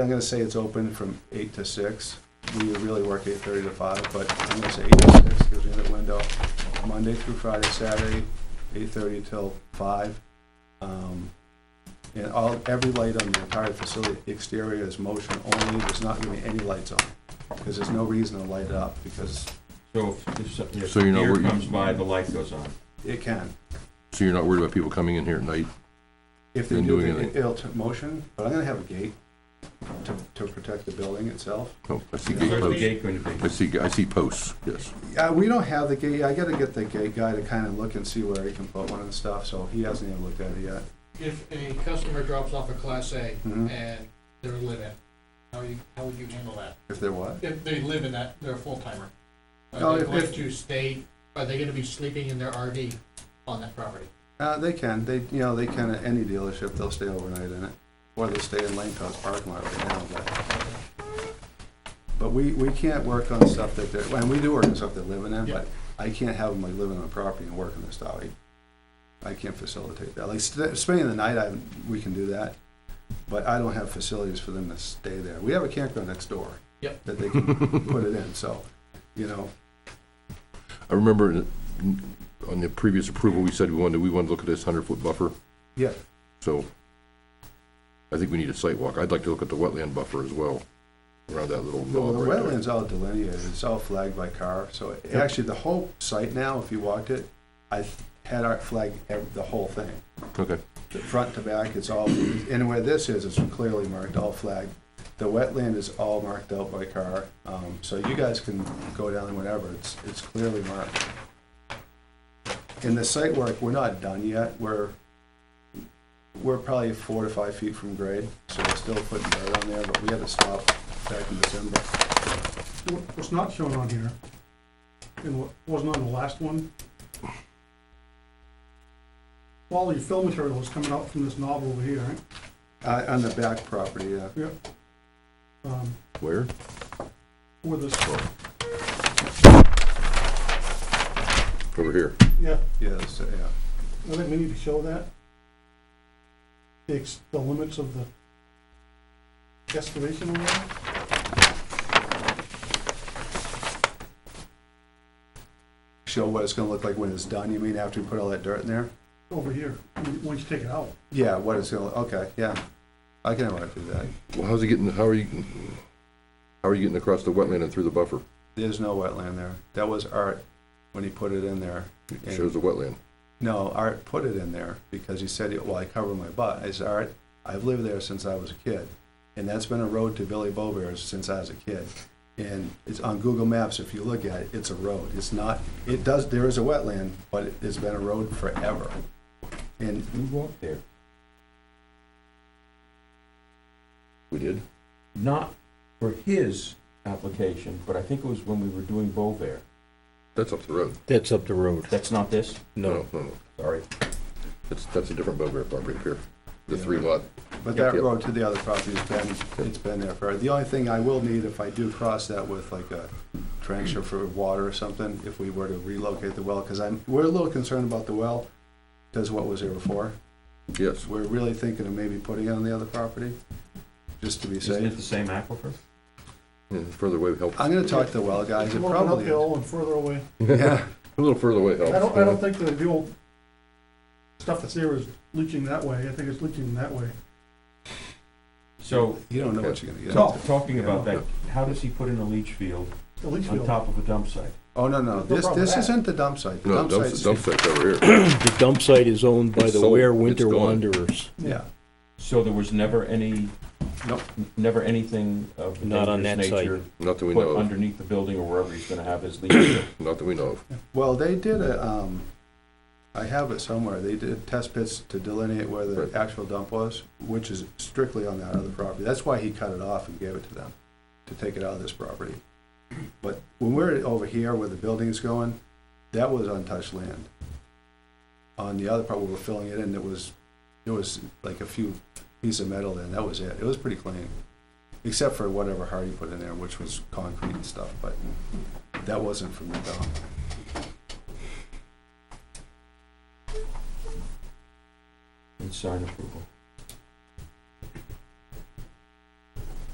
I'm gonna say it's open from eight to six. We really work eight thirty to five, but I'm gonna say eight to six, gives me that window. Monday through Friday, Saturday, eight thirty till five. Um, And all, every light on the entire facility exterior is motion only, there's not gonna be any lights on, because there's no reason to light it up, because So if, if some- if So you know deer where you- comes by, the light goes on. it can. So you're not worried about people coming in here at night? If they Then do, doing then anything. it'll turn motion, but I'm gonna have a gate to, to protect the building itself. Oh, I see gate Where's the posts. gate going to I be? see, I see posts, yes. Yeah, we don't have the gate, I gotta get the gate guy to kinda look and see where he can put one and stuff, so he hasn't even looked at it yet. If a customer drops off a Class A Mhm. and they're a live-in, how you, how would you handle that? If there was. If they live in that, they're a full-timer. No, Are they Oh, if- going if- to stay, are they gonna be sleeping in their RV on that property? Uh, they can, they, you know, they can at any dealership, they'll stay overnight in it, or they stay in Lane Coast parking lot right now, but. But we, we can't work on stuff that they're, and we do work on stuff they're living in, Yeah. but I can't have them like living on a property and working this out. I- I can't facilitate that, like st- spending the night, I, we can do that, but I don't have facilities for them to stay there. We have a campground next door. Yep. That they can put it in, so, you know, I remember in- on the previous approval, we said we wanted, we wanted to look at this hundred-foot buffer, yeah, so I think we need a site walk. I'd like to look at the wetland buffer as well, around that little Well, the knob right there. wetland's all delineated, it's all flagged by car, so it- actually, the whole site now, if you walked it, I had our flag, ev- the whole thing, Okay, The front to back, it's all, and where this is, it's clearly marked, all flagged. The wetland is all marked out by car, um, so you guys can go down and whatever, it's, it's clearly marked. In the site work, we're not done yet, we're, we're probably four to five feet from grade, so we're still putting dirt on there, but we had to stop back in December. What- What's not shown on here, and what wasn't on the last one, all your fill material is coming out from this knob over here, right? Uh, on the back property, yeah. Um, where? Where this, Over here. yeah, Yes, yeah. I think we need to show that. The ex the limits of the excavation area. Show what it's gonna look like when it's done, you mean after we put all that dirt in there? over here, when- once you take it out. Yeah, what it's gonna, okay, yeah. I can have to do that. Well, how's he getting, how are you, how are you getting across the wetland and through the buffer? There's no wetland there. That was Art when he put it in there. It shows the wetland. No, Art put it in there because he said, well, I cover my butt. I said, Art, I've lived there since I was a kid. And that's been a road to Billy Bobear's since I was a kid. And it's on Google Maps, if you look at it, it's a road. It's not, it does, there is a wetland, but it- it's been a road forever. And Who walked there? We did? Not for his application, but I think it was when we were doing Bovair. That's up the road. That's up the road. That's not this? No, No, no, Sorry. that's, that's a different Bover property up here, the three lot. But Yep, that yep. road to the other property has been, it's been there forever. The only thing I will need if I do cross that with like a trencher for water or something, if we were to relocate the well, because I'm, we're a little concerned about the well, because what was there before. Yes, We're really thinking of maybe putting it on the other property, just to be Isn't it safe. the same aquifer? yeah, further away helps. I'm gonna talk to the well guys, it Working probably is. Oh, uphill and further away. Yeah, A little further away I helps. don't, I don't think the the old stuff that's there is leaching that way, I think it's leaching that way. So, you don't know what you're gonna get. talk- talking about that, how does he put in a leach field The leach on field. top of a dump site? Oh, no, no, No this, problem with this that. isn't the dump site. The No, dump dump, dump site's, site's over here. The dump site is owned by It's the sold. Ware It's Winter gone. Wanderers, yeah, So there was never any, Nope. never anything of a Not on dangerous that site. nature Not that we know put of, underneath the building or wherever he's gonna have his leach field? not that we know of. well, they did a, um, I have it somewhere, they did test pits to delineate where the Right. actual dump was, which is strictly on that other property. That's why he cut it off and gave it to them, to take it out of this property. But when we're over here where the building's going, that was untouched land. On the other part, we were filling it in, it was, it was like a few pieces of metal in, that was it. It was pretty clean, except for whatever Hardy put in there, which was concrete and stuff, but that wasn't from the dump. And sign approval.